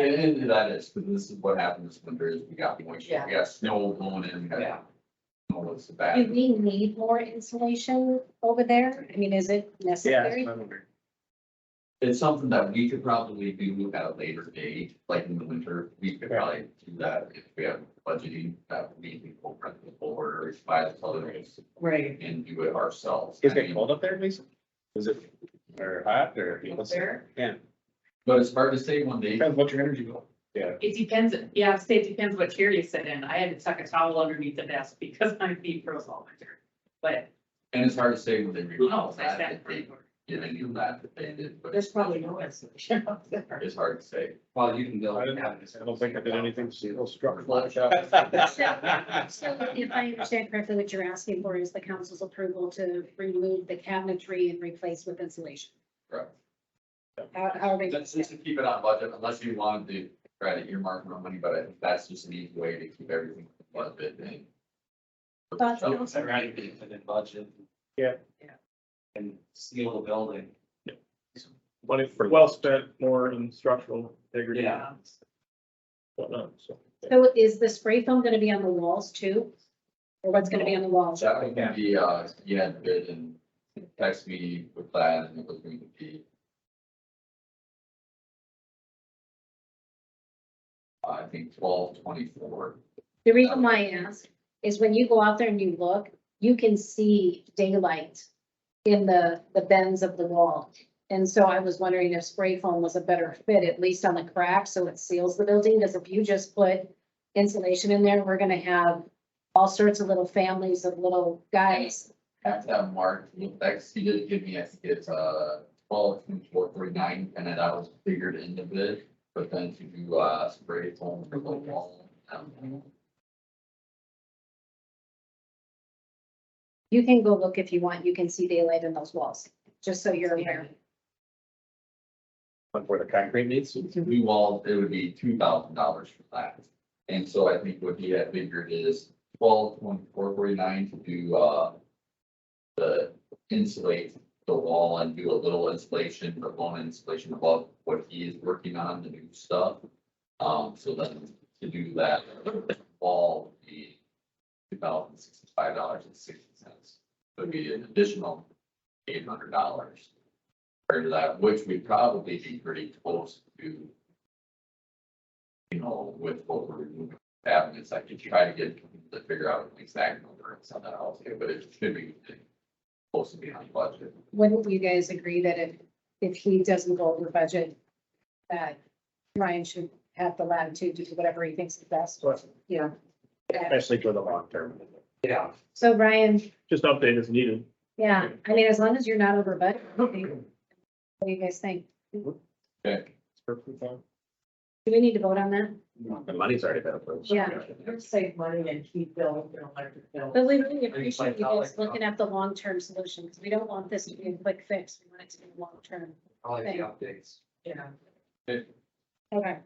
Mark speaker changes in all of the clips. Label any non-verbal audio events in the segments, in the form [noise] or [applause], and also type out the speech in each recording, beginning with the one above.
Speaker 1: And, and that is, because this is what happened this winter is we got moisture, we got snow blowing in, we
Speaker 2: Yeah.
Speaker 1: got. All this
Speaker 3: Do
Speaker 1: bad.
Speaker 3: we need more insulation over there? I mean, is it necessary?
Speaker 1: It's something that we could probably do at a later date, like in the winter, we could probably do that if we have budgeting that we can go rent the board or buy the colors
Speaker 2: Right.
Speaker 1: and do it ourselves.
Speaker 4: Is
Speaker 1: I
Speaker 4: it
Speaker 1: mean,
Speaker 4: cold up there, Lisa? Is it, or hot, or?
Speaker 2: Up there?
Speaker 1: But it's hard to say one day.
Speaker 4: Depends what your energy bill.
Speaker 2: It depends, yeah, I'd say it depends what chair you sit in. I had to tuck a towel underneath the desk because [laughs] my feet froze all winter. But oh,
Speaker 1: And it's hard to say when they.
Speaker 2: who
Speaker 1: rebuild
Speaker 2: knows, I
Speaker 1: that,
Speaker 2: sat
Speaker 1: if
Speaker 2: pretty
Speaker 1: they
Speaker 2: hard.
Speaker 1: Did any of that, if they did, but
Speaker 2: There's probably no insulation up there.
Speaker 1: it's hard to say.
Speaker 5: Well, you can build.
Speaker 4: I don't, [laughs] I don't think I did anything to struck. [laughs]
Speaker 3: So if I understand correctly, what you're asking for is the council's approval to remove the cabinetry and replace with insulation.
Speaker 1: Correct.
Speaker 3: How, how are we?
Speaker 1: That's just to keep it on budget unless you wanted to try to earmark more money, but I think that's just an easy way to keep everything on budget and.
Speaker 3: Thoughts,
Speaker 1: Oh,
Speaker 3: council?
Speaker 5: Right, and then budget.
Speaker 4: Yeah.
Speaker 2: Yeah.
Speaker 5: And seal the building.
Speaker 4: Money well spent, more in structural integrity. and
Speaker 5: Yeah.
Speaker 4: Whatnot, so.
Speaker 3: So is the spray foam gonna be on the walls too? Or what's gonna be on the walls?
Speaker 1: That would be, uh, yeah, bid and text me with that and it was going to be. I think twelve twenty-four.
Speaker 3: The reason why I ask is when you go out there and you look, you can see daylight in the, the bends of the wall. And so I was wondering if spray foam was a better fit, at least on the crack, so it seals the building, because if you just put insulation in there, we're gonna have all sorts of little families of little guys.
Speaker 1: Have that marked, with X, he did give me, I think it's, uh, twelve twenty-four forty-nine, and then that was figured into bid. But then to do, uh, spray foam for the wall, um,
Speaker 3: You can go look if you want, you can see daylight in those walls, just so you're aware.
Speaker 4: Like where the concrete meets.
Speaker 1: new walls, it would be two thousand dollars for that. And so I think what he had figured is twelve point four forty-nine to do, uh, the insulate the wall and do a little insulation, but one insulation above what he is working on, the new stuff. Um, so then to do that, wall would be two thousand sixty-five dollars and sixty cents. Would be an additional eight hundred dollars compared to that, which would probably be pretty close to, you know, with what we're removing cabinets, I could try to get, to figure out an exact number and send that out to you, but it should be close to being on budget.
Speaker 3: Wouldn't you guys agree that if, if he doesn't go over budget, that Ryan should have the latitude to do whatever he thinks is best? Yeah.
Speaker 4: Especially for the long term.
Speaker 5: Yeah.
Speaker 3: So Ryan,
Speaker 4: Just update as needed.
Speaker 3: yeah, I mean, as long as you're not over budget, I think- what do you guys think?
Speaker 1: Okay.
Speaker 4: It's perfectly fine.
Speaker 3: Do we need to vote on that?
Speaker 4: The money's already been approved.
Speaker 3: Yeah.
Speaker 2: Save money and keep billing their electric bill.
Speaker 3: But we really appreciate you guys looking at the long-term solution, because we don't want this to be a quick fix. We want it to be long-term.
Speaker 5: Probably the updates.
Speaker 2: Yeah.
Speaker 3: Okay.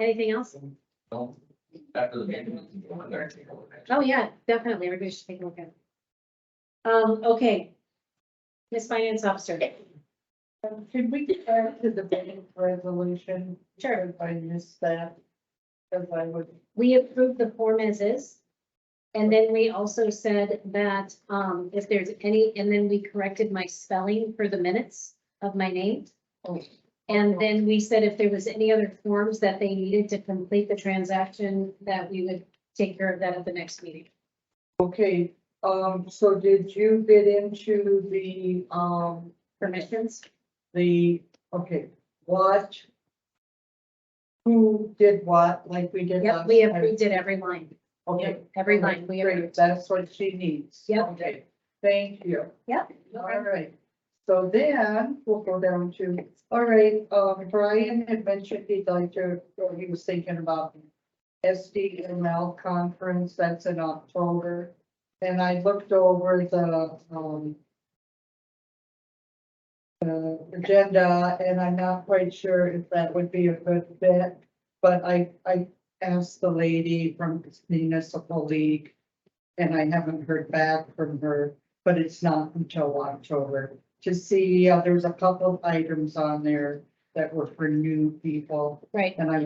Speaker 3: Anything else?
Speaker 1: So, After the meeting, we can go in there and take a look at it.
Speaker 3: Oh, yeah, definitely. Everybody should take a look at it. Um, okay. Miss Finance Officer.
Speaker 6: Should Um, we get back to the bank resolution? Sure. If I missed that, because I would,
Speaker 3: we approved the form as is. And then we also said that, um, if there's any, and then we corrected my spelling for the minutes of my name. And then we said if there was any other forms that they needed to complete the transaction, that we would take care of that at the next meeting.
Speaker 6: okay, um, so did you get into the, um,
Speaker 3: Permissions?
Speaker 6: the, okay, what? Who did what, like we did
Speaker 3: Yep,
Speaker 6: last
Speaker 3: we
Speaker 6: time?
Speaker 3: approved it every line,
Speaker 6: Okay.
Speaker 3: every line. We
Speaker 6: Great,
Speaker 3: approved.
Speaker 6: that's what she needs.
Speaker 3: Yep.
Speaker 6: Okay, thank you.
Speaker 3: Yep.
Speaker 6: All right, so then we'll go down to, all right, um, Brian had mentioned he'd like to, or he was thinking about SDML conference, that's in October. And I looked over the, um, the agenda and I'm not quite sure if that would be a good fit, but I, I asked the lady from Municipal League and I haven't heard back from her but it's not until October. To see, uh, there's a couple of items on there that were for new people,
Speaker 3: Right.
Speaker 6: and I